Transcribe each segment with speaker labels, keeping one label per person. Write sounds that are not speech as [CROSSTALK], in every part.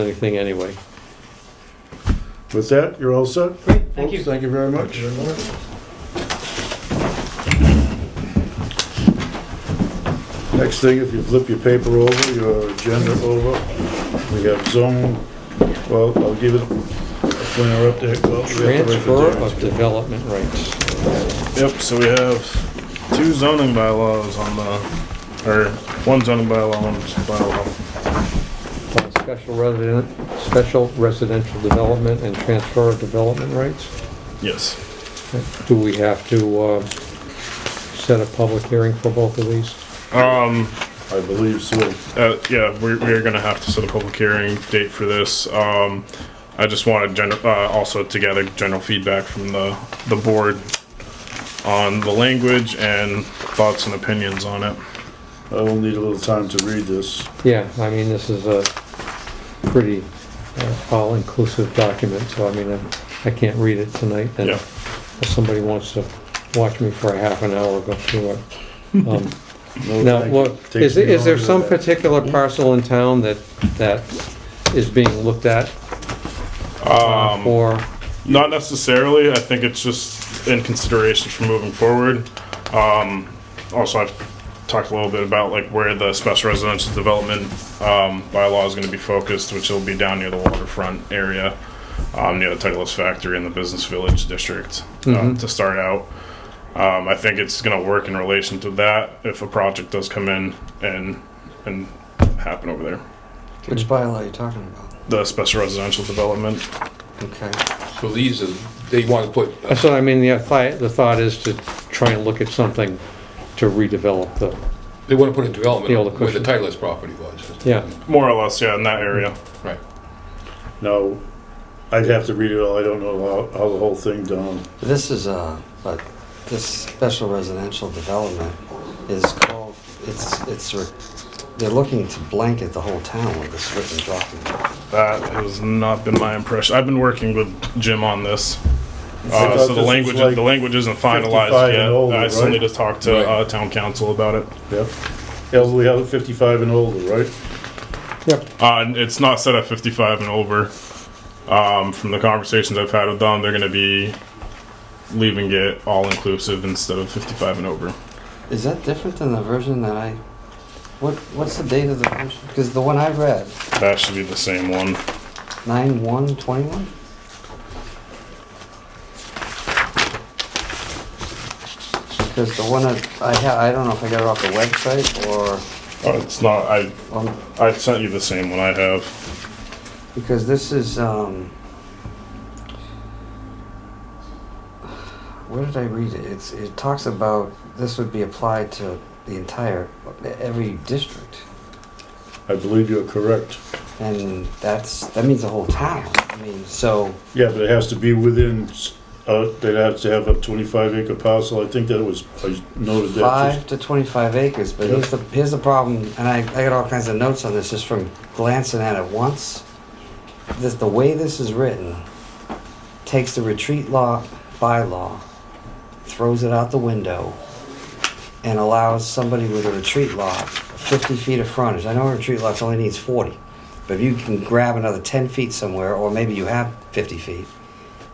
Speaker 1: anything anyway.
Speaker 2: With that, you're all set?
Speaker 1: Great, thank
Speaker 2: Folks,
Speaker 1: you.
Speaker 2: Thank you very much. Next thing, if you flip your paper over, your agenda over, we have zone, well, I'll give it a planner update. Well, we have to write the
Speaker 1: Transfer
Speaker 2: dates.
Speaker 1: of development rights.
Speaker 3: Yep, so we have two zoning bylaws on the, or one zoning bylaw, one bylaw.
Speaker 1: on Special resident, special residential development and transfer of development rights.
Speaker 3: Yes.
Speaker 1: Do we have to, uh, set a public hearing for both of these?
Speaker 3: Um,
Speaker 2: I believe so.
Speaker 3: uh, yeah, we're, we're gonna have to set a public hearing date for this. Um, I just wanted general, uh, also to gather general feedback from the, the board on the language and thoughts and opinions on it.
Speaker 2: I will need a little time to read this.
Speaker 1: Yeah, I mean, this is a pretty uh, all-inclusive document, so I mean, I'm- I can't read it tonight. and
Speaker 3: Yeah.
Speaker 1: If somebody wants to watch me for a half an hour, go
Speaker 2: [LAUGHS]
Speaker 1: through it. Um,
Speaker 2: No,
Speaker 1: Now,
Speaker 2: thank you.
Speaker 1: look,
Speaker 2: Takes
Speaker 1: is, there-
Speaker 2: me
Speaker 1: is there
Speaker 2: longer
Speaker 1: some
Speaker 2: than that.
Speaker 1: particular parcel in town that, that is being looked at uh,
Speaker 3: Um,
Speaker 1: for?
Speaker 3: Not necessarily. I think it's just in consideration for moving forward. Um, also, I've talked a little bit about like where the special residential development um, bylaw is going to be focused, which will be down near the waterfront area, um, near the Titleist Factory and the Business Village District um,
Speaker 1: Mhm.
Speaker 3: to start out. Um, I think it's going to work in relation to that if a project does come in and and happen over there.
Speaker 4: Which bylaw are you talking about?
Speaker 3: The special residential development.
Speaker 4: Okay.
Speaker 5: So these are, they want to put,
Speaker 1: That's what I mean, the thought, the thought is to try and look at something to redevelop the,
Speaker 5: they want to put a
Speaker 1: The older
Speaker 5: development where the
Speaker 1: question.
Speaker 5: Titleist property was.
Speaker 1: yeah.
Speaker 3: More or less, yeah, in that area.
Speaker 5: Right.
Speaker 2: No, I'd have to read it all. I don't know how, how the whole thing done.
Speaker 4: This is a, a, this special residential development is called, it's, it's, re- they're looking to blanket the whole town with this written document.
Speaker 3: That has not been my impression. I've been working with Jim on
Speaker 2: I
Speaker 3: this. Uh,
Speaker 2: thought
Speaker 3: so
Speaker 2: this
Speaker 3: the
Speaker 2: was
Speaker 3: language,
Speaker 2: like
Speaker 3: the language isn't
Speaker 2: 55
Speaker 3: finalized yet.
Speaker 2: and older,
Speaker 3: I still
Speaker 2: right?
Speaker 3: need to talk to
Speaker 5: Right.
Speaker 3: uh, town council about it.
Speaker 2: Yep. Elderly, how- 55 and older, right?
Speaker 1: Yep.
Speaker 3: Uh, and it's not set at 55 and over. Um, from the conversations I've had with them, they're going to be leaving it all inclusive instead of 55 and over.
Speaker 4: Is that different than the version that I, what, what's the date of the version? Because the one I read,
Speaker 3: That should be the same one.
Speaker 4: nine one twenty-one? Because the one that I ha, I don't know if I got it off the website or, um,
Speaker 3: Uh, it's not. I
Speaker 4: on
Speaker 3: I sent you the same one I have.
Speaker 4: Because this is, um, where did I read it? It's, it talks about this would be applied to the entire, every district.
Speaker 2: I believe you're correct.
Speaker 4: And that's, that means the whole town. I mean, so,
Speaker 2: Yeah, but it has to be within, uh, they'd have to have a twenty-five acre parcel, I think that was, I noted that.
Speaker 4: five to twenty-five acres, but here's the, here's the problem, and I, I got all kinds of notes on this, just from glancing at it once. This, the way this is written, takes the retreat law, bylaw, throws it out the window, and allows somebody with a retreat lot fifty feet of frontage, I know a retreat lot only needs forty, but if you can grab another ten feet somewhere, or maybe you have fifty feet,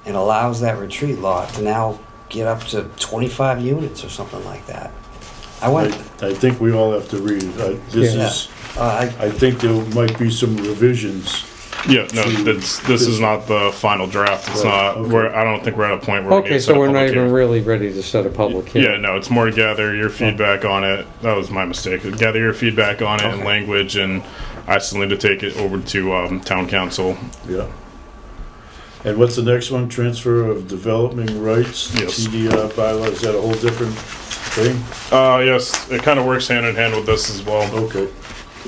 Speaker 4: and allows that retreat lot to now get up to 25 units or something like that. I
Speaker 2: I,
Speaker 4: went,
Speaker 2: I think we all have to read it, I, this
Speaker 1: Yeah.
Speaker 2: is,
Speaker 4: uh, I,
Speaker 2: I think there might be some revisions.
Speaker 3: Yeah, no, it's, this is not the final draft. It's
Speaker 2: Right,
Speaker 3: not.
Speaker 2: okay.
Speaker 3: We're, I don't think we're at a point where we need
Speaker 1: Okay,
Speaker 3: to set
Speaker 1: so
Speaker 3: a
Speaker 1: we're not
Speaker 3: public hearing.
Speaker 1: even really ready to set a public
Speaker 3: Yeah,
Speaker 1: hearing.
Speaker 3: no, it's more to gather your feedback on it. That was my mistake. Gather your feedback on it and
Speaker 4: Okay.
Speaker 3: language, and I still need to take it over to um, town council.
Speaker 2: Yeah. And what's the next one, transfer of developing rights,
Speaker 3: Yes.
Speaker 2: TDR bylaw, is that a whole different thing?
Speaker 3: Uh, yes, it kind of works hand in hand with this as well.
Speaker 2: Okay,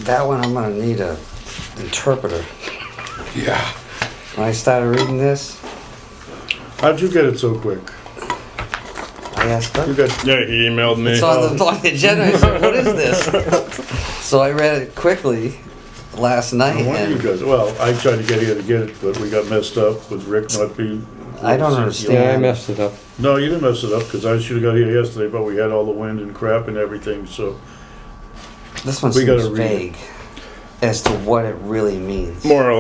Speaker 4: that one I'm going to need a interpreter.
Speaker 5: Yeah.
Speaker 4: When I started reading this,
Speaker 2: how'd you get it so quick?
Speaker 4: I asked
Speaker 2: You
Speaker 4: her.
Speaker 2: got,
Speaker 3: Yeah, he emailed me.
Speaker 4: It's on the, on the agenda. I said, what is this? so I read it quickly last night.
Speaker 2: no wonder you
Speaker 4: And
Speaker 2: guys, well, I tried to get here to get it, but we got messed up with Rick not being.
Speaker 4: I don't understand.
Speaker 1: Yeah, I messed it up.
Speaker 2: No, you didn't mess it up, because I should've got here yesterday, but we had all the wind and crap and everything, so.
Speaker 4: this one
Speaker 2: We gotta
Speaker 4: seems
Speaker 2: read it.
Speaker 4: vague as to what it really means.
Speaker 3: more or